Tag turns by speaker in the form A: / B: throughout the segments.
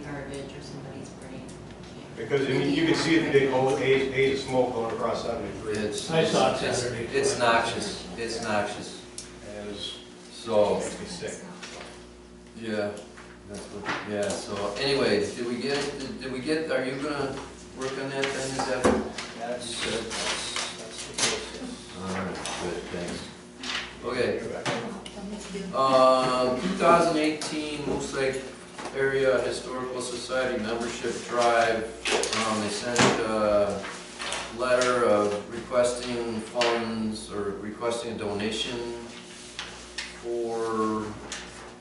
A: through somebody's brain. Can't-
B: Because, I mean, you can see it, the old A's, A's of smoke going across seventy-three.
C: It's,
D: I saw it
C: it's-
D: Saturday.
C: it's noxious, it's noxious,
B: And it's,
C: so,
B: it's sick.
C: yeah, that's what, yeah, so anyways, did we get, did we get, are you gonna work on that then, is that?
E: That's, uh, that's, that's the process.
C: Alright, good, thanks. Okay,
B: You're back.
C: um, two thousand eighteen Moose Lake Area Historical Society Membership Drive, um, they sent a letter of requesting funds or requesting a donation for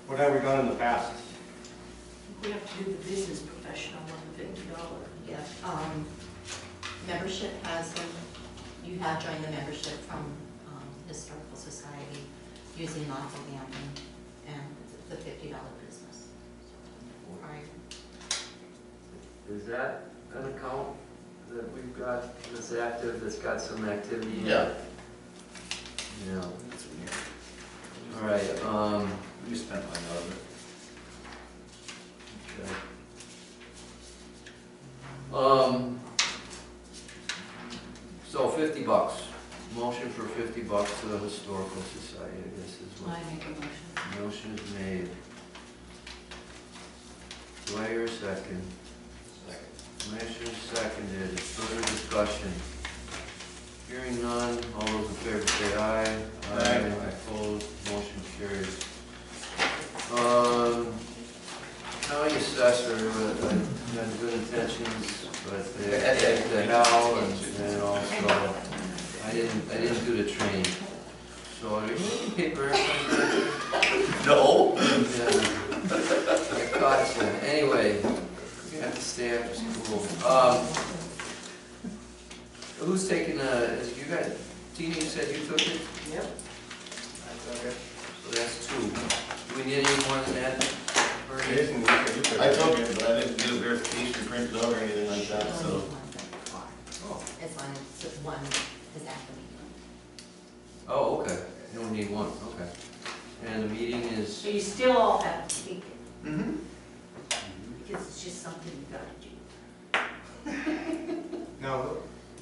B: What have we done in the past?
F: We have to do the business professional one, fifty dollar.
A: Yeah, um, membership has been, you have joined the membership from, um, Historical Society using Montalban and the fifty dollar business. Right.
C: Is that an account that we've got that's active, that's got some activity? in it?
E: Yeah.
C: Yeah, all right, um,
E: You spent my other. Okay.
C: um, so fifty bucks, motion for fifty bucks to the Historical Society, I guess is what.
A: I make a motion?
C: Motion is made. Do I hear a second? Motion is seconded, further discussion. Hearing none, all those in favor say aye.
B: Aye.
C: Opposed, motion carries. Um, county assessor, uh, had good intentions, but they had the how and and also, I didn't, I didn't do the training. So, are you making paper airplanes?
E: No?
C: Yeah. I caught you. Anyway, you have to stay after school. Um, who's taking, uh, is you got, Tina, you said you took it,
F: Yep.
C: so that's two. Do we need any more than that? Bernie?
B: Jason, you could- you could-
G: I took it, but I didn't do verification printed out or anything like
A: She
G: that,
A: only
G: so.
A: wants that far. As long as it's one is at the meeting.
C: Oh, okay, you don't need one, okay. And the meeting is,
F: So you still all have to take it,
C: mm-hmm,
F: because it's just something you gotta do.
B: Now,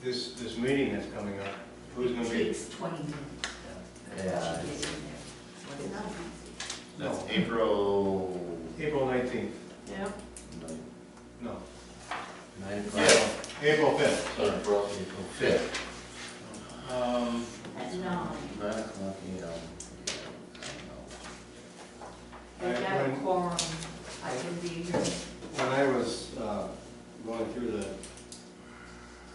B: this, this meeting that's coming up, who's gonna
F: It
B: be?
F: takes twenty minutes.
C: yeah,
F: to get in there. So it's not easy.
G: That's April.
B: April nineteenth,
F: Yep.
B: no,
C: nine o'clock,
G: Yeah.
B: April fifth.
G: Sorry, April.
C: April fifth.
B: Um,
F: At nine.
G: Nine o'clock, you know.
F: They
B: I-
F: have a
B: when-
F: quorum. I can be here.
B: When I was uh, going through the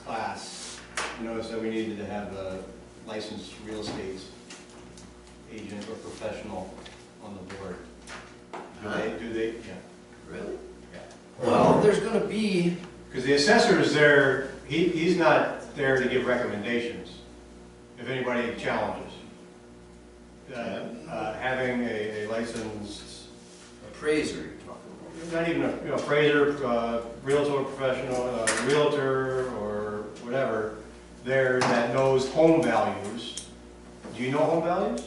B: class, I noticed that we needed to have a licensed real estate agent or professional on the board. Do they, do they, yeah.
C: Really? Well, there's gonna be,
B: Because the assessor is there, he, he's not there to give recommendations, if anybody challenges. Uh, uh, Having a a licensed,
C: appraiser you're talking about.
B: not even a you know, appraiser, uh, realtor professional, uh, realtor or whatever, there that knows home values. Do you know home values?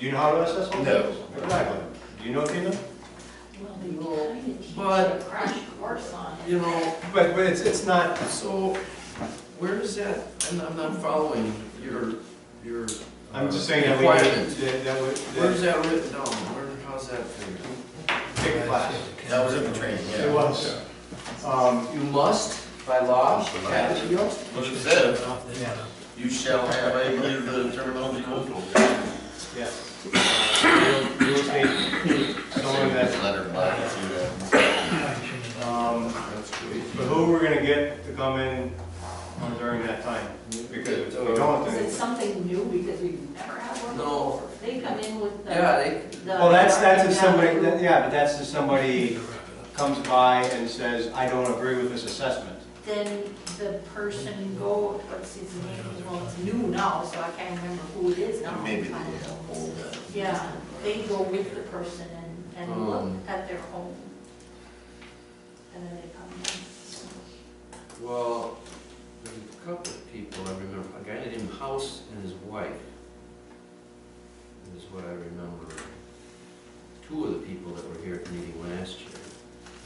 B: Do you know how to assess home
G: No.
B: values? Exactly. Do you know, Tina?
F: Well, they kinda teach you
C: But-
F: a crash course on it.
C: You know,
B: But, but it's, it's not,
C: So, where is that, I'm, I'm not following your, your. uh,
B: I'm just saying that we,
C: Requirement.
B: that, that would,
C: Where's
B: that,
C: that written down, where, how's that figured?
B: take a class.
G: That was in the training, yeah.
B: It was. Um,
C: You must, by law, have it.
G: What it said,
D: Yeah.
G: you shall have, I believe the terminology was.
B: yeah. Real real estate, someone that,
G: Letter, I see that.
B: um,
C: That's great.
B: but who we're gonna get to come in during that time? Because if we don't,
F: Is it
B: then.
F: something new because we've never had one?
C: No.
F: before? They come in with the.
C: Yeah, they,
F: the-
B: Well, that's, that's if somebody, that- yeah, but that's if somebody comes by and says, I don't agree with this assessment.
F: Then the person go, what's his name, well, it's new now, so I can't remember who it is now.
G: Maybe uh, they have all that.
F: Yeah, they go with the person and, and look
C: Um.
G: Hmm.
F: at their home.